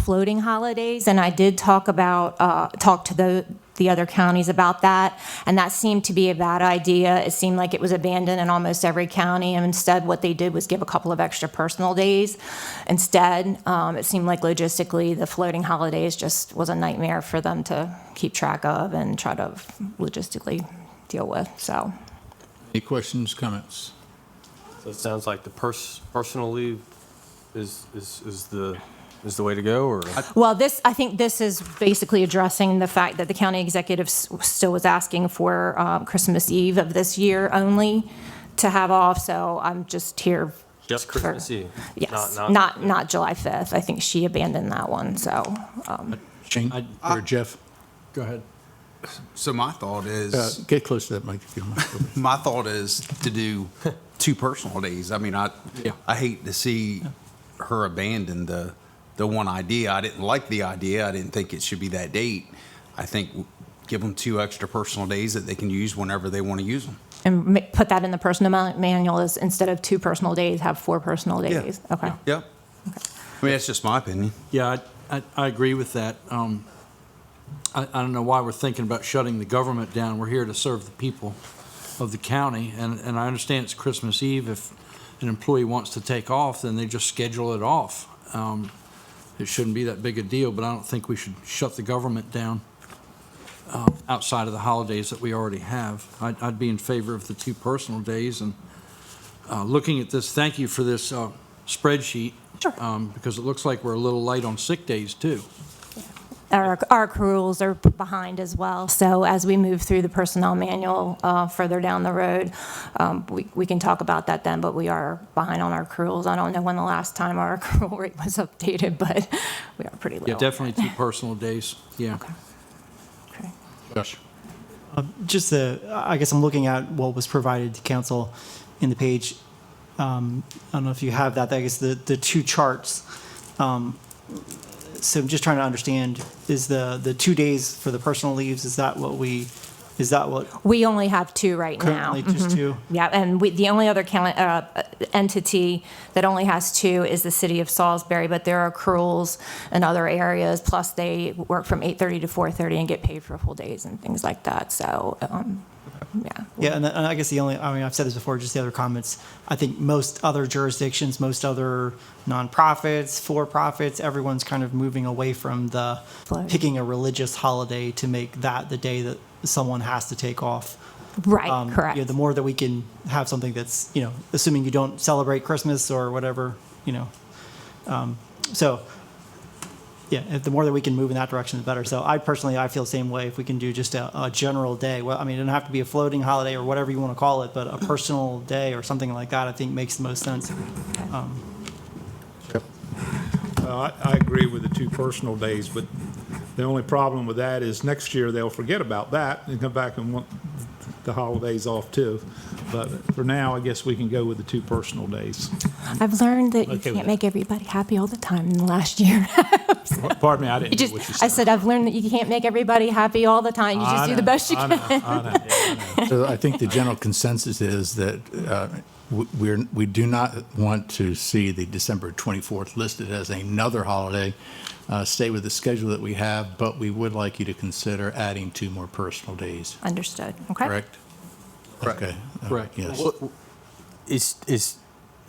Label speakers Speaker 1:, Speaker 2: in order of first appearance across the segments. Speaker 1: floating holidays, and I did talk about, uh, talk to the, the other counties about that, and that seemed to be a bad idea. It seemed like it was abandoned in almost every county, and instead, what they did was give a couple of extra personal days. Instead, um, it seemed like logistically, the floating holidays just was a nightmare for them to keep track of and try to logistically deal with, so.
Speaker 2: Any questions, comments?
Speaker 3: So it sounds like the pers- personal leave is, is, is the, is the way to go, or?
Speaker 1: Well, this, I think this is basically addressing the fact that the county executive s- still was asking for um, Christmas Eve of this year only to have off, so I'm just here.
Speaker 3: Just
Speaker 1: for-
Speaker 3: Christmas Eve,
Speaker 1: Yes,
Speaker 3: not- not-
Speaker 1: not, not July 5th. I think she abandoned that one, so.
Speaker 2: Shane or Jeff? Go ahead.
Speaker 4: So my thought is,
Speaker 2: Uh, Get close to that mic. if you don't mind.
Speaker 4: my thought is to do two personal days. I mean, I
Speaker 2: Yeah.
Speaker 4: I hate to see her abandon the the one idea. I didn't like the idea. I didn't think it should be that date. I think w- give them two extra personal days that they can use whenever they want to use them.
Speaker 1: And ma- put that in the personal ma- manual is instead of two personal days, have four personal
Speaker 4: Yeah.
Speaker 1: days. Okay.
Speaker 4: Yep. I mean, that's just my opinion.
Speaker 5: Yeah, I, I, I agree with that. Um, I, I don't know why we're thinking about shutting the government down. We're here to serve the people of the county, and, and I understand it's Christmas Eve. If an employee wants to take off, then they just schedule it off. Um, it shouldn't be that big a deal, but I don't think we should shut the government down uh, outside of the holidays that we already have. I'd, I'd be in favor of the two personal days, and uh, looking at this, thank you for this uh, spreadsheet.
Speaker 1: Sure.
Speaker 5: um, Because it looks like we're a little light on sick days, too.
Speaker 1: Our, our accruals are behind as well. So as we move through the personnel manual uh, further down the road, um, we, we can talk about that then, but we are behind on our accruals. I don't know when the last time our accrual rate was updated, but we are pretty low.
Speaker 5: Definitely two personal days, yeah.
Speaker 1: Okay.
Speaker 2: Josh?
Speaker 6: just the I guess I'm looking at what was provided to council in the page. Um, I don't know if you have that. I guess the the two charts. Um, so I'm just trying to understand: is the the two days for the personal leaves? Is that what we? Is that what
Speaker 1: We only have two right now. Mm-hmm.
Speaker 6: currently just two?
Speaker 1: Yeah, and we, the only other cal- uh, entity that only has two is the city of Salisbury, but there are accruals in other areas, plus they work from 8:30 to 4:30 and get paid for full days and things like that, so, um, yeah.
Speaker 6: Yeah, and, and I guess the only, I mean, I've said this before, just the other comments. I think most other jurisdictions, most other nonprofits, for profits, everyone's kind of moving away from the
Speaker 1: Float.
Speaker 6: picking a religious holiday to make that the day that someone has to take off.
Speaker 1: Right,
Speaker 6: Um,
Speaker 1: correct.
Speaker 6: You know, the more that we can have something that's, you know, assuming you don't celebrate Christmas or whatever, you know. Um, so, yeah, if the more that we can move in that direction, the better. So I personally, I feel the same way. If we can do just a, a general day, well, I mean, it doesn't have to be a floating holiday or whatever you want to call it, but a personal day or something like that, I think makes the most sense.
Speaker 7: Uh, I I agree with the two personal days, but the only problem with that is next year they'll forget about that and come back and want the holidays off too. But for now, I guess we can go with the two personal days.
Speaker 1: I've learned that you
Speaker 7: Okay with
Speaker 1: can't
Speaker 7: that.
Speaker 1: make everybody happy all the time in the last year.
Speaker 7: Pardon me, I
Speaker 1: You
Speaker 7: didn't hear
Speaker 1: just,
Speaker 7: what you
Speaker 1: I
Speaker 7: said.
Speaker 1: said, I've learned that you can't make everybody happy all the time, you just do the best you
Speaker 7: I
Speaker 1: can.
Speaker 7: know, I know, I know.
Speaker 2: So I think the general consensus is that uh, w- we're, we do not want to see the December 24th listed as another holiday. Uh, Stay with the schedule that we have, but we would like you to consider adding two more personal days,
Speaker 1: Understood, okay?
Speaker 2: correct?
Speaker 4: Correct.
Speaker 2: Okay. uh,
Speaker 5: Correct.
Speaker 2: Yes.
Speaker 3: Is, is,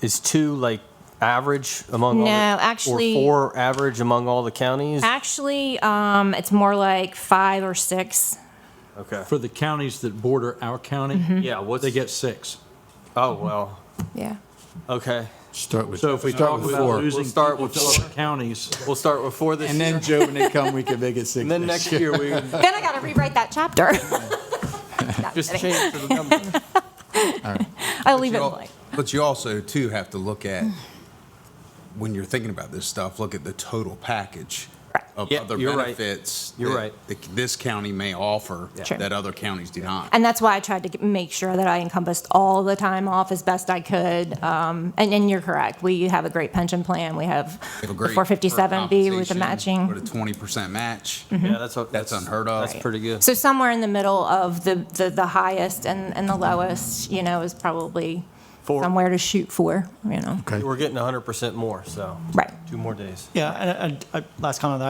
Speaker 3: is two like average among all? the-
Speaker 1: No, actually-
Speaker 3: Or four average among all the counties?
Speaker 1: Actually, um, it's more like five or six.
Speaker 3: Okay.
Speaker 5: For the counties that border our county,
Speaker 3: Yeah, what's,
Speaker 5: they get six.
Speaker 3: oh, well,
Speaker 1: Yeah.
Speaker 3: okay.
Speaker 2: Start with,
Speaker 5: So if we
Speaker 2: start
Speaker 5: talk
Speaker 2: with
Speaker 5: about
Speaker 2: four.
Speaker 5: losing
Speaker 3: We'll start
Speaker 5: people
Speaker 3: with
Speaker 5: to other counties,
Speaker 3: We'll start with four this
Speaker 2: And
Speaker 3: year,
Speaker 2: then, Joe, when they come, we can make it six.
Speaker 3: and then next year we
Speaker 1: Then I gotta rewrite that chapter.
Speaker 3: just change to the number.
Speaker 1: I'll leave
Speaker 4: you
Speaker 1: it
Speaker 4: al-
Speaker 1: blank.
Speaker 4: But you also too have to look at when you're thinking about this stuff. Look at the total package
Speaker 1: Right.
Speaker 4: of
Speaker 3: Yeah,
Speaker 4: other
Speaker 3: you're right.
Speaker 4: benefits.
Speaker 3: You're
Speaker 4: that
Speaker 3: right.
Speaker 4: the- This county may offer
Speaker 1: Sure.
Speaker 4: that other counties do not.
Speaker 1: And that's why I tried to g- make sure that I encompassed all the time off as best I could. Um, and, and you're correct. We have a great pension plan. We have
Speaker 4: They
Speaker 1: the
Speaker 4: have a great
Speaker 1: 457B with the
Speaker 4: compensation, With
Speaker 1: matching. Mm-hmm.
Speaker 4: a twenty percent match.
Speaker 3: Yeah, that's, what-
Speaker 4: That's unheard of.
Speaker 3: That's pretty good.
Speaker 1: So somewhere in the middle of the, the, the highest and, and the lowest, you know, is probably somewhere to shoot for, you know?
Speaker 2: Okay.
Speaker 3: We're getting 100% more, so.
Speaker 1: Right.
Speaker 3: Two more days.
Speaker 6: Yeah, and, and, uh, last comment on that,